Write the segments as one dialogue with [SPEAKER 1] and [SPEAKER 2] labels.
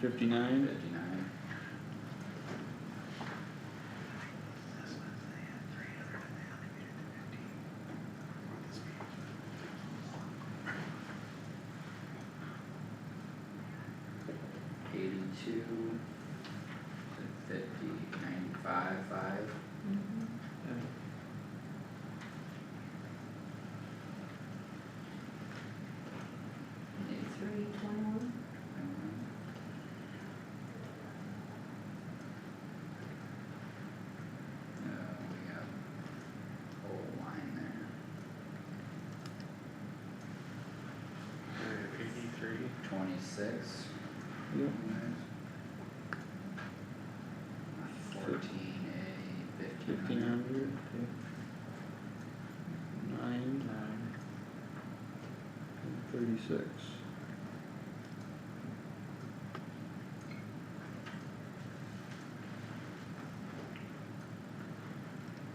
[SPEAKER 1] fifty-nine,
[SPEAKER 2] fifty-nine. Eighty-two, fifty, ninety-five, five,
[SPEAKER 3] Three twenty-one?
[SPEAKER 2] eighty-one. Uh, we have a whole line there.
[SPEAKER 4] Eighty-three.
[SPEAKER 2] Twenty-six.
[SPEAKER 1] Yep.
[SPEAKER 2] Fourteen A, fifteen
[SPEAKER 1] fifteen
[SPEAKER 2] hundred.
[SPEAKER 1] hundred, okay. Nine,
[SPEAKER 4] Nine.
[SPEAKER 1] and thirty-six.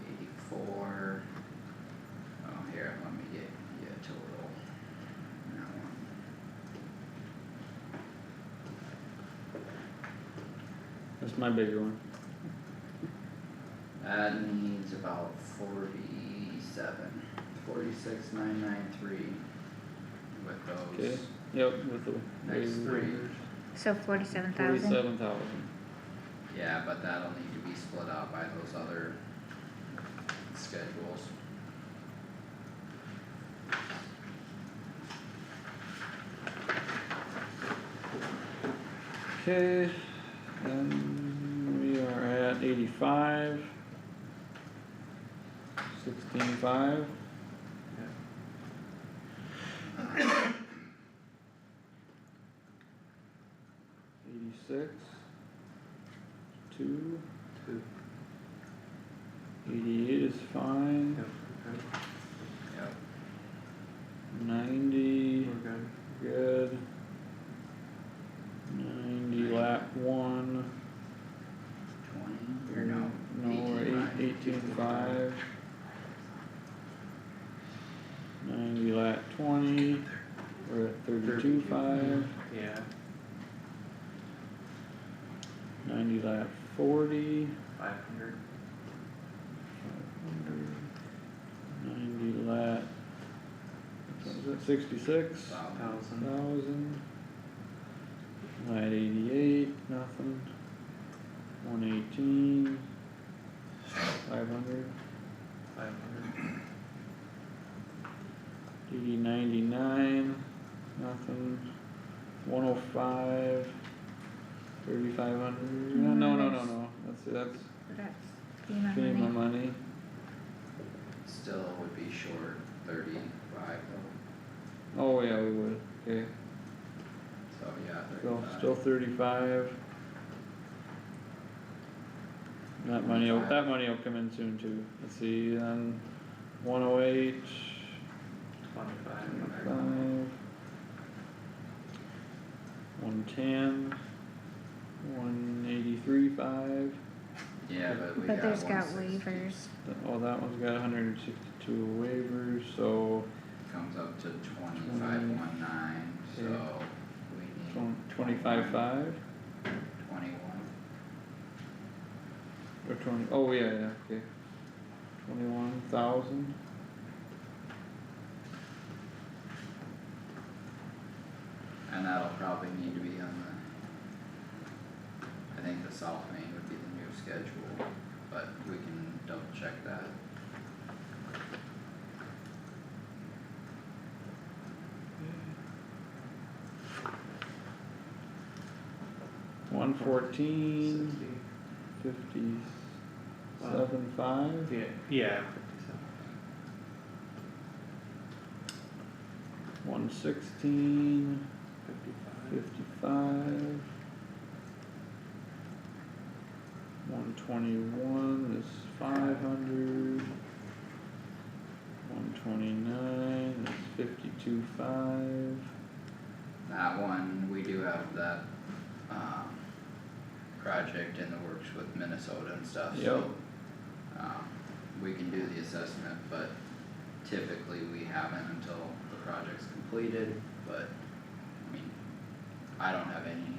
[SPEAKER 2] Eighty-four. Oh, here, let me get, get total. That one.
[SPEAKER 1] That's my bigger one.
[SPEAKER 2] That needs about forty-seven, forty-six, nine, nine, three. With those.
[SPEAKER 1] Okay. Yep, with the.
[SPEAKER 2] Next
[SPEAKER 1] big
[SPEAKER 2] three.
[SPEAKER 1] waivers.
[SPEAKER 5] So forty-seven thousand?
[SPEAKER 1] Forty-seven thousand.
[SPEAKER 2] Yeah, but that'll need to be split out by those other schedules.
[SPEAKER 1] Okay, then we are at eighty-five. Sixteen-five, eighty-six. Two,
[SPEAKER 4] Two.
[SPEAKER 1] eighty-eight is fine,
[SPEAKER 4] Yep, okay,
[SPEAKER 2] Yep.
[SPEAKER 1] ninety,
[SPEAKER 4] we're good.
[SPEAKER 1] good. Ninety, lap one.
[SPEAKER 2] Twenty, or no,
[SPEAKER 1] No, we're
[SPEAKER 2] eighteen
[SPEAKER 1] eight,
[SPEAKER 2] five.
[SPEAKER 1] eighteen-five. Ninety, lap twenty, we're at thirty-two-five.
[SPEAKER 4] Yeah,
[SPEAKER 1] Ninety lap forty.
[SPEAKER 4] five hundred.
[SPEAKER 1] Ninety lap. What was it, sixty-six
[SPEAKER 2] Wow.
[SPEAKER 4] Thousand.
[SPEAKER 1] thousand? Lap eighty-eight, nothing. One eighteen. Five hundred.
[SPEAKER 4] Five hundred.
[SPEAKER 1] DD ninety-nine, nothing. One oh five. Thirty-five hundred, no, no, no, no, no, that's, that's
[SPEAKER 5] That's FEMA
[SPEAKER 1] FEMA
[SPEAKER 5] money.
[SPEAKER 1] money.
[SPEAKER 2] Still would be short thirty-five though,
[SPEAKER 1] Oh, yeah, we would, okay.
[SPEAKER 2] so yeah,
[SPEAKER 1] So,
[SPEAKER 2] thirty-five.
[SPEAKER 1] still thirty-five. That money, will- that money will come in soon too, let's see, um, one oh eight,
[SPEAKER 4] Twenty-five.
[SPEAKER 1] five. One ten, one eighty-three five,
[SPEAKER 2] Yeah, but we got
[SPEAKER 5] But there's got
[SPEAKER 2] 160.
[SPEAKER 5] waivers.
[SPEAKER 1] Th- oh, that one's got hundred and sixty-two waivers, so
[SPEAKER 2] Comes up to twenty-five
[SPEAKER 1] Twenty.
[SPEAKER 2] one nine, so
[SPEAKER 1] Okay.
[SPEAKER 2] we need
[SPEAKER 1] tw- twenty-five five,
[SPEAKER 2] twenty-one,
[SPEAKER 1] or twenty, oh, yeah, yeah, okay. Twenty-one thousand.
[SPEAKER 2] and that'll probably need to be on the. I think the South Main would be the new schedule, but we can double check that.
[SPEAKER 1] One fourteen,
[SPEAKER 4] Sixty.
[SPEAKER 1] fifty-seven five.
[SPEAKER 4] Yeah, yeah, fifty-seven.
[SPEAKER 1] One sixteen,
[SPEAKER 4] Fifty-five.
[SPEAKER 1] fifty-five. One twenty-one is five hundred. One twenty-nine is fifty-two five.
[SPEAKER 2] That one, we do have that, um, project in the works with Minnesota and stuff, so. Um, we can do the assessment, but typically we haven't until the project's completed, but, I mean, I don't have any